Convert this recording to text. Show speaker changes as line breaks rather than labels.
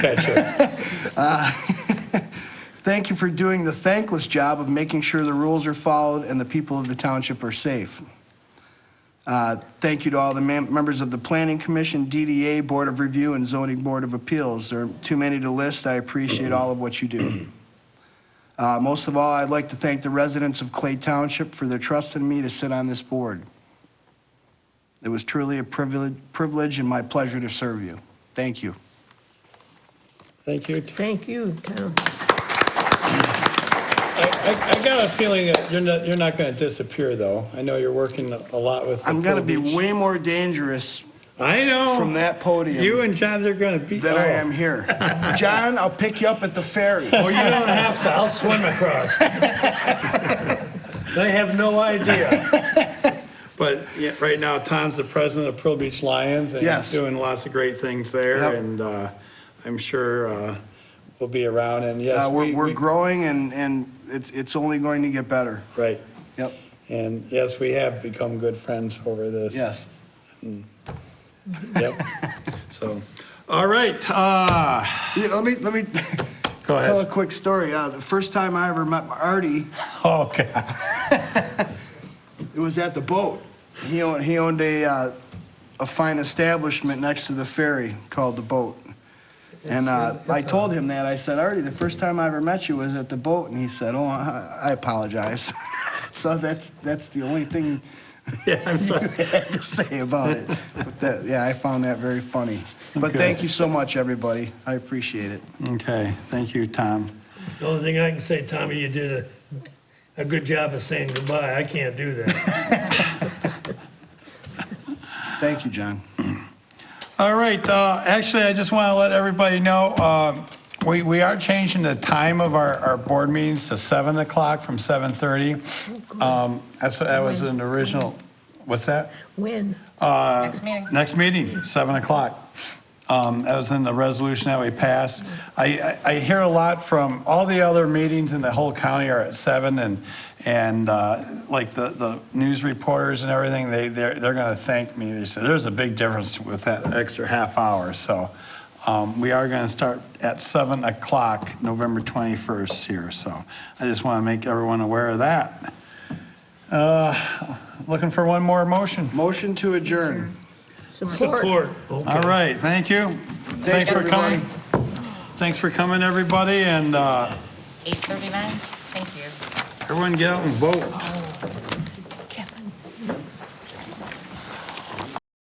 Uh, Thank you for doing the thankless job of making sure the rules are followed and the people of the township are safe. Uh, Thank you to all the mem- members of the Planning Commission, DDA, Board of Review, and Zoning Board of Appeals. There are too many to list. I appreciate all of what you do. Uh, Most of all, I'd like to thank the residents of Clay Township for their trust in me to sit on this board. It was truly a privilege privilege and my pleasure to serve you. Thank you.
Thank you.
Thank you, Tom.
I, I- I got a feeling that you're not, you're not going to disappear, though. I know you're working a lot with. the
I'm going to be
Pearl Beach.
way more dangerous
I know.
from that podium.
You and John, they're going to be. Oh.
that I am here. John, I'll pick you up at the ferry.
Oh, you don't have to, I'll swim across. They have no idea.
But yeah, right now, Tom's the president of Pearl Beach Lions, and
Yes.
he's doing lots of great things there,
Yep.
and uh, I'm sure uh, we'll be around, and yes.
Uh,
we-
we're, we're
we-
growing and, and it's, it's only going to get better.
Right,
Yep.
and yes, we have become good friends over this.
Yes.
Yep. So, all right, uh,
Yeah, Let me, let me
go
tell a
ahead.
quick story. Uh, the first time I ever met Artie,
Oh,
Okay.
it was at the boat. He owned, he owned a, uh, a fine establishment next to the ferry called the boat. And uh,
It's-
I
it's
told him that. I said, Artie, the first time I ever met you was at the boat. And he said, oh, I I apologize. so that's, that's the only thing
Yeah, I'm sorry.
I had to say about it. But that, yeah, I found that very funny. But
Okay.
thank you so much, everybody. I appreciate it.
Okay, thank you, Tom.
The only thing I can say, Tommy, you did a, a good job of saying goodbye. I can't do that.
Thank you, John.
All right, uh, actually, I just want to let everybody know, um, we we are changing the time of our our board meetings to 7 o'clock from 7:30. Um, That's That was an original, what's that?
When?
Uh,
Next meeting.
Next meeting, 7 o'clock. Um, That was in the resolution that we passed. I, I I hear a lot from, all the other meetings in the whole county are at 7, and, and uh, like the, the news reporters and everything, they, they're, they're going to thank me. They said, there's a big difference with that extra half hour, so um, we are going to start at 7 o'clock, November 21st here, so I just want to make everyone aware of that. Uh, Looking for one more motion.
Motion to adjourn.
Support.
All right, thank you. Thanks for
everybody.
coming. Thanks for coming, everybody, and uh,
8:39? Thank you.
everyone get out and vote.